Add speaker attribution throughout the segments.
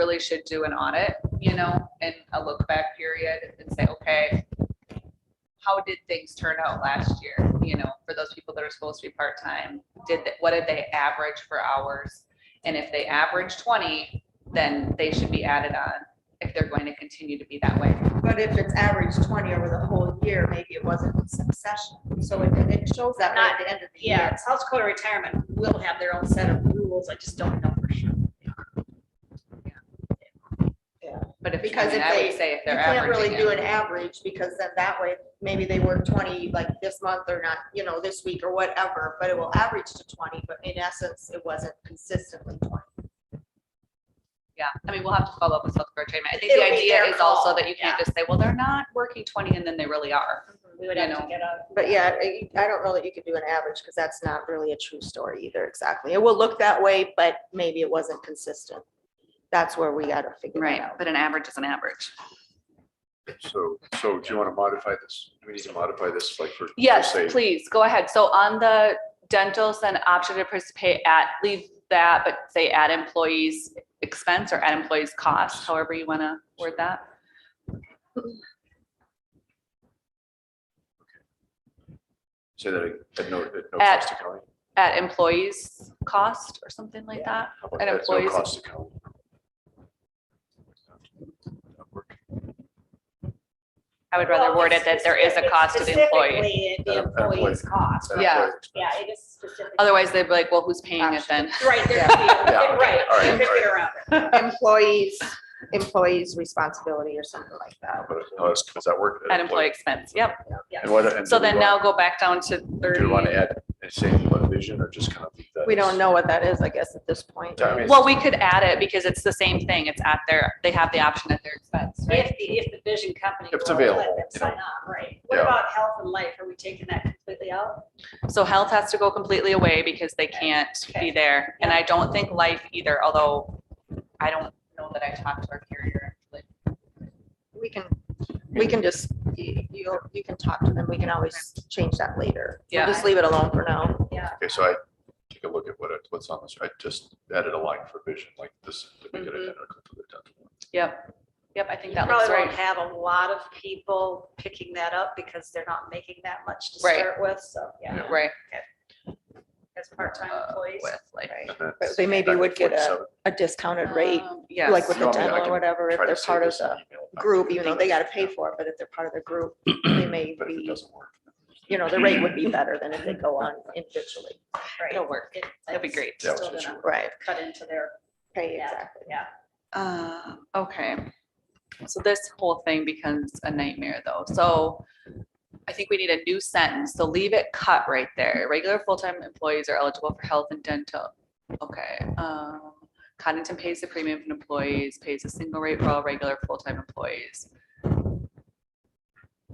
Speaker 1: really should do an audit, you know, and a look back period and say, okay, how did things turn out last year? You know, for those people that are supposed to be part-time, did, th- what did they average for hours? And if they average twenty, then they should be added on if they're going to continue to be that way.
Speaker 2: But if it's average twenty over the whole year, maybe it wasn't in succession, so it, and it shows up at
Speaker 3: Not-
Speaker 2: the end of the
Speaker 3: Yeah,
Speaker 2: year.
Speaker 3: South Dakota retirement will have their own set of rules. I just don't know for sure.
Speaker 1: But if,
Speaker 2: Because
Speaker 1: I mean,
Speaker 2: if
Speaker 1: I
Speaker 2: they-
Speaker 1: would say if
Speaker 2: You
Speaker 1: they're
Speaker 2: can't really
Speaker 1: averaging
Speaker 2: do
Speaker 1: it,
Speaker 2: an average, because then that way, maybe they work twenty like this month or not, you know, this week or whatever, but it will average to twenty, but in essence, it wasn't consistently twenty.
Speaker 1: yeah, I mean, we'll have to follow up with South Dakota Trade. I think the
Speaker 3: It'll be
Speaker 1: idea
Speaker 3: their
Speaker 1: is also
Speaker 3: call,
Speaker 1: that you can't
Speaker 3: yeah.
Speaker 1: just say, well, they're not working twenty and then they really are.
Speaker 3: We would
Speaker 1: You
Speaker 3: have to
Speaker 1: know.
Speaker 3: get a.
Speaker 2: Mm-hmm. But yeah, I I don't know that you could do an average, because that's not really a true story either, exactly. It will look that way, but maybe it wasn't consistent. That's where we gotta figure it
Speaker 1: Right,
Speaker 2: out.
Speaker 1: but an average is an average.
Speaker 4: So, so do you want to modify this? Do we need to modify this like for? for
Speaker 1: Yes,
Speaker 4: say-
Speaker 1: please, go ahead. So on the dentals and option to participate at, leave that, but say at employees expense or at employees cost, however you want to word that.
Speaker 4: Say that at no, at no
Speaker 1: At-
Speaker 4: cost to county?
Speaker 1: At employees cost or something like that.
Speaker 4: How about
Speaker 1: at
Speaker 4: at no
Speaker 1: employees-
Speaker 4: cost to county? That work?
Speaker 1: I would rather word it that there is a cost to the employee.
Speaker 3: Specifically,
Speaker 4: At
Speaker 3: The
Speaker 4: a- at a point.
Speaker 3: employee's cost.
Speaker 4: At
Speaker 1: Yeah.
Speaker 4: employee expense.
Speaker 3: Yeah, it is specific.
Speaker 1: Otherwise, they'd be like, well, who's paying it then?
Speaker 3: Right, there, yeah,
Speaker 4: Yeah, okay,
Speaker 3: right.
Speaker 4: all
Speaker 3: there
Speaker 4: right,
Speaker 3: could
Speaker 4: all
Speaker 3: be
Speaker 4: right.
Speaker 3: around it.
Speaker 2: Employees, employees responsibility or something like that.
Speaker 4: But no, that's- Does that work?
Speaker 1: At employee expense, yep.
Speaker 3: Yeah.
Speaker 4: And what? and
Speaker 1: So
Speaker 4: do we
Speaker 1: then now
Speaker 4: want-
Speaker 1: go back down to
Speaker 4: Do you want to
Speaker 1: thirty.
Speaker 4: add, and say what vision or just kind of? leave that
Speaker 2: We
Speaker 4: as-
Speaker 2: don't know what that is, I guess, at this point.
Speaker 4: I mean,
Speaker 1: Well, we could add it because it's the same thing. It's at their, they have the option at their expense, right?
Speaker 3: If the, if the vision company.
Speaker 4: If it's
Speaker 3: will let
Speaker 4: available,
Speaker 3: them
Speaker 4: you
Speaker 3: Sign up, right. What
Speaker 4: Yeah.
Speaker 3: about health and life? Are we taking that completely out?
Speaker 1: So health has to go completely away because they can't be
Speaker 3: Okay.
Speaker 1: there. And I don't think life either, although I don't know that I talked to our carrier. actually.
Speaker 2: We can, we can just, you, you you can talk to them. We can always change that later. We'll
Speaker 1: Yeah.
Speaker 2: Just leave it alone for now.
Speaker 3: Yeah.
Speaker 4: Okay, so I take a look at what, it- what's on this. I just added a line for vision like this. to make it
Speaker 1: Mhm.
Speaker 4: identical to the dental one.
Speaker 1: Yep, yep, I think
Speaker 3: You
Speaker 1: that looks
Speaker 3: probably won't
Speaker 1: right.
Speaker 3: have a lot of people picking that up because they're not making that much to
Speaker 1: Right.
Speaker 3: start with, so, yeah,
Speaker 1: Right.
Speaker 3: as part-time
Speaker 1: uh,
Speaker 3: employees.
Speaker 1: With like.
Speaker 2: Right.
Speaker 4: And then
Speaker 2: But they maybe
Speaker 4: back to
Speaker 2: would get a-
Speaker 4: 47.
Speaker 2: A discounted rate,
Speaker 1: Um, Yes.
Speaker 2: like with
Speaker 4: You
Speaker 2: the
Speaker 4: want me to- I
Speaker 2: dental or
Speaker 4: can
Speaker 2: whatever, if
Speaker 4: Try to
Speaker 2: they're
Speaker 4: save
Speaker 2: part of
Speaker 4: this
Speaker 2: the
Speaker 4: and email it back to
Speaker 2: group, even though they gotta
Speaker 4: Yeah.
Speaker 2: pay for it, but if they're part of the group, they may
Speaker 4: But if it
Speaker 2: be,
Speaker 4: doesn't work.
Speaker 2: you know, the rate would be better than if they go on individually.
Speaker 3: Right.
Speaker 1: It'll work.
Speaker 3: It-
Speaker 1: That'd be
Speaker 3: it's
Speaker 1: great.
Speaker 4: Yeah,
Speaker 3: Still
Speaker 4: it's
Speaker 3: gonna
Speaker 2: Right.
Speaker 3: cut into their,
Speaker 2: Pay
Speaker 3: Yeah.
Speaker 2: exactly.
Speaker 3: yeah.
Speaker 1: Uh, okay. So this whole thing becomes a nightmare though. So I think we need a new sentence. So leave it cut right there. Regular full-time employees are eligible for health and dental. Okay. Um, Cottington pays the premium for employees, pays a single rate for all regular full-time employees.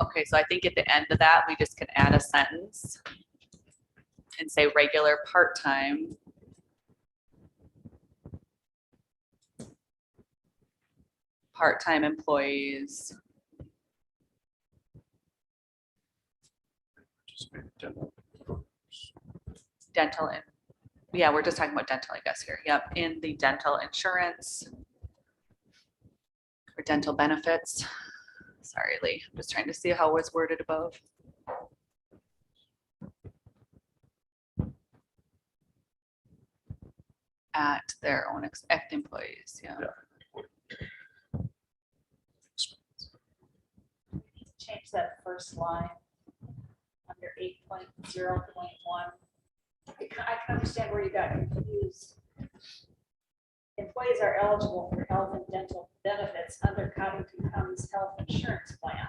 Speaker 1: Okay, so I think at the end of that, we just can add a sentence and say regular part-time part-time employees.
Speaker 4: Just maybe dental.
Speaker 1: dental and, yeah, we're just talking about dental, I guess, here. Yep, in the dental insurance. Or dental benefits. Sorry, Lee, I'm just trying to see how it was worded above. At their own, ex- at the employees, yeah.
Speaker 3: change that first line under eight point zero point one. I can I can understand where you got confused. Employees are eligible for health and dental benefits under Cottington County's health insurance plan.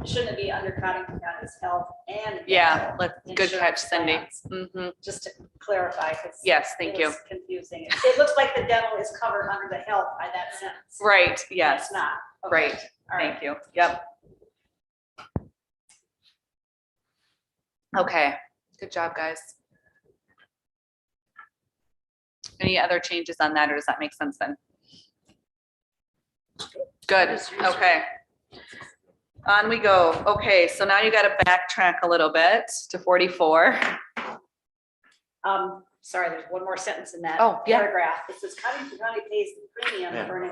Speaker 3: It Shouldn't be under Cottington County's health and.
Speaker 1: Yeah,
Speaker 3: dental
Speaker 1: let, good catch,
Speaker 3: insurance
Speaker 1: Cindy.
Speaker 3: plans,
Speaker 1: Mhm.
Speaker 3: Just to clarify, because.
Speaker 1: Yes, thank
Speaker 3: it
Speaker 1: you.
Speaker 3: was Confusing. It- It looks like the dental is covered under the health by that sentence.
Speaker 1: Right, yes,
Speaker 3: It's not. Okay,
Speaker 1: right.
Speaker 3: All right.
Speaker 1: Thank you. Yep. Okay, good job, guys. Any other changes on that, or does that make sense then? Good, okay. On we go. Okay, so now you gotta backtrack a little bit to forty-four.
Speaker 3: Um, sorry, there's one more sentence in that.
Speaker 1: Oh, yeah.
Speaker 3: Paragraph. It says Cottington County pays the premium
Speaker 4: Yeah.
Speaker 3: for an